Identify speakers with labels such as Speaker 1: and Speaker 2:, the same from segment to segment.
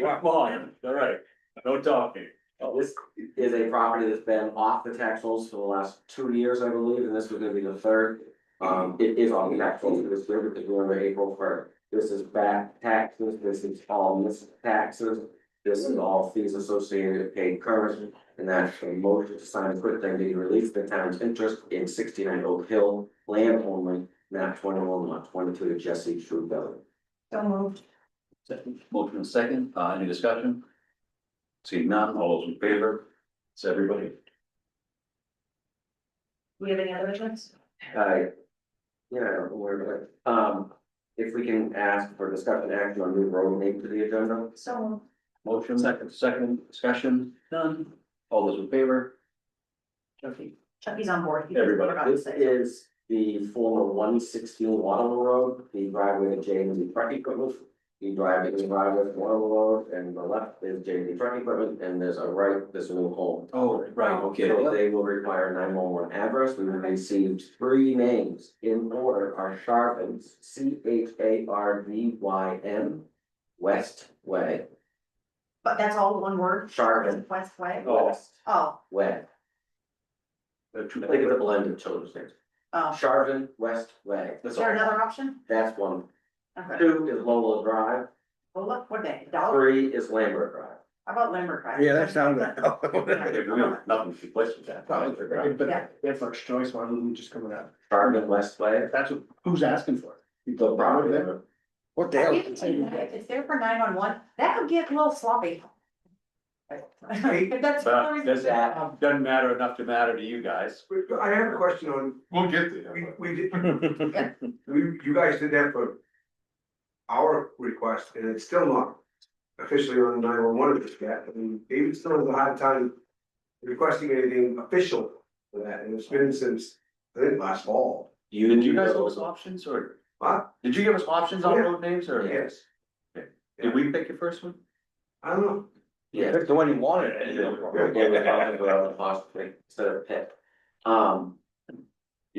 Speaker 1: Come on, all right, no talking.
Speaker 2: This is a property that's been off the tax rolls for the last two years, I believe, and this was gonna be the third. Um, it is on the tax rolls this year because we were April first. This is back taxes, this is all missed taxes. This is all fees associated with paid current, and that's a motion to sign a quick thing to release the town's interest in sixty nine Oak Hill. Land only, map twenty one, lot twenty two, Jesse Truebell.
Speaker 3: So moved.
Speaker 1: Second, Motion and second, uh, any discussion? Seeing none, all those in favor, it's everybody.
Speaker 3: Do we have any other ones?
Speaker 2: Uh, yeah, I don't know where, but, um, if we can ask for discussion action on new road name to the agenda.
Speaker 3: So moved.
Speaker 1: Motion second, second, discussion, none, all those in favor? Jeffy?
Speaker 3: Chucky's on board. He
Speaker 1: Everybody.
Speaker 3: forgot to
Speaker 2: This
Speaker 3: say.
Speaker 2: is the former one sixteen Waterloo Road, the driveway to J and Z Truck Equipment. The driveway is driveway to Waterloo Road, and the left is J and Z Truck Equipment, and there's a right, there's a new home.
Speaker 1: Oh, right, okay,
Speaker 2: So
Speaker 1: yep,
Speaker 2: they will require nine one one address, we received three names in order are Sharpens, C H A R V Y N. West Way,
Speaker 3: But that's all one word?
Speaker 2: Chardon.
Speaker 3: West Way?
Speaker 1: Oh.
Speaker 2: West
Speaker 3: Oh,
Speaker 2: Way,
Speaker 1: they're two-
Speaker 2: think of the blend of children's names,
Speaker 3: oh.
Speaker 2: Sharpton West Way,
Speaker 3: Is
Speaker 1: That's
Speaker 3: there
Speaker 1: all,
Speaker 3: another option?
Speaker 2: that's one.
Speaker 3: Okay.
Speaker 2: Two is Lola Drive,
Speaker 3: Well, look, what they, dollar,
Speaker 2: three is Lambert Drive.
Speaker 3: how about Lambert Drive?
Speaker 4: Yeah, that sounds.
Speaker 1: If we don't- nothing to replace with that.
Speaker 4: Oh, But
Speaker 3: Yeah.
Speaker 4: their first choice, why wouldn't we just come with that?
Speaker 2: Sharpton West Way,
Speaker 4: That's what, who's asking for it?
Speaker 2: the property,
Speaker 4: What
Speaker 3: I give it to you. If It's there for nine on one. That could get a little sloppy. But that's.
Speaker 1: But does
Speaker 2: that-
Speaker 1: doesn't matter enough to matter to you guys.
Speaker 5: I have a question on,
Speaker 6: We'll get
Speaker 5: we,
Speaker 6: there.
Speaker 5: we did, we, you guys did that for our request, and it's still not officially on nine one one yet, I mean, David still has a hard time requesting anything official for that, and it's been since, I think, last fall.
Speaker 2: you
Speaker 1: Did
Speaker 2: didn't
Speaker 1: you
Speaker 2: do
Speaker 1: guys give us
Speaker 2: those,
Speaker 1: options or?
Speaker 5: Huh?
Speaker 1: Did you give us options on
Speaker 5: Yeah.
Speaker 1: road names or?
Speaker 5: Yes,
Speaker 1: Did we pick your first one?
Speaker 5: I don't know,
Speaker 2: yeah.
Speaker 4: the one you wanted.
Speaker 2: Instead of PIP. Um,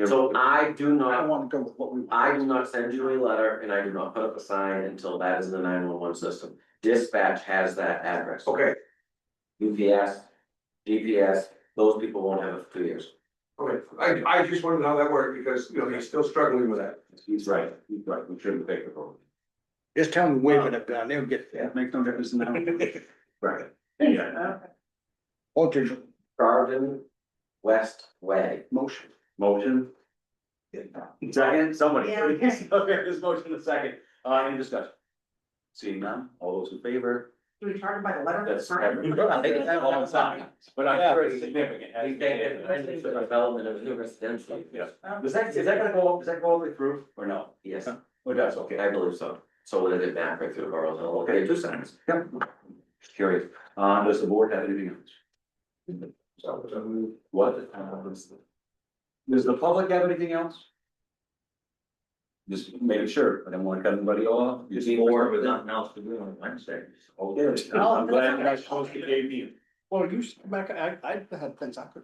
Speaker 2: so I do
Speaker 4: I
Speaker 2: not
Speaker 4: don't wanna go with what we. want.
Speaker 2: I do not send you a letter and I do not put up a sign until that is in the nine one one system. Dispatch has that address.
Speaker 5: okay,
Speaker 2: UPS, DPS, those people won't have it for two years.
Speaker 5: okay, I, I just wondered how that worked, because, you know, he's still struggling with that.
Speaker 1: He's right, he's right, we shouldn't pick the road.
Speaker 4: Just tell them to wave it up down, they'll get, it makes no difference now.
Speaker 1: Right. Yeah,
Speaker 4: Alter
Speaker 2: Garden, West Way.
Speaker 4: motion.
Speaker 1: motion. Second, somebody.
Speaker 3: Yeah.
Speaker 1: Okay, there's motion in a second, uh, any discussion? Seeing none, all those in favor?
Speaker 3: Do we charge them by the letter?
Speaker 2: That's every- I think it's all
Speaker 1: All
Speaker 2: on sign.
Speaker 1: signed, But I'm sure it's significant.
Speaker 2: We think it's the development of new residential.
Speaker 1: Yeah, is that, is that gonna go, up? is that go all the way through or no?
Speaker 2: Yes,
Speaker 1: Or that's
Speaker 2: I
Speaker 1: okay,
Speaker 2: believe so. So what did it back right through Borough Hill? Okay, two signs.
Speaker 1: just curious, uh, does the board have anything else?
Speaker 5: So, so,
Speaker 1: What?
Speaker 2: Uh,
Speaker 1: Does the public have anything else? Just making sure, I don't wanna cut anybody off. Oh, You see more with that.
Speaker 2: Nothing else to do on Wednesday.
Speaker 1: Okay, I'm glad you guys posted the game meeting.
Speaker 4: Well, you, s- Mac, I, I had things I could.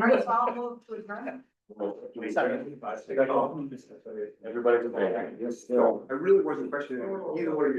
Speaker 3: right, so I'll move to adjourn.
Speaker 1: Everybody's.
Speaker 5: I really wasn't questioning either one of you.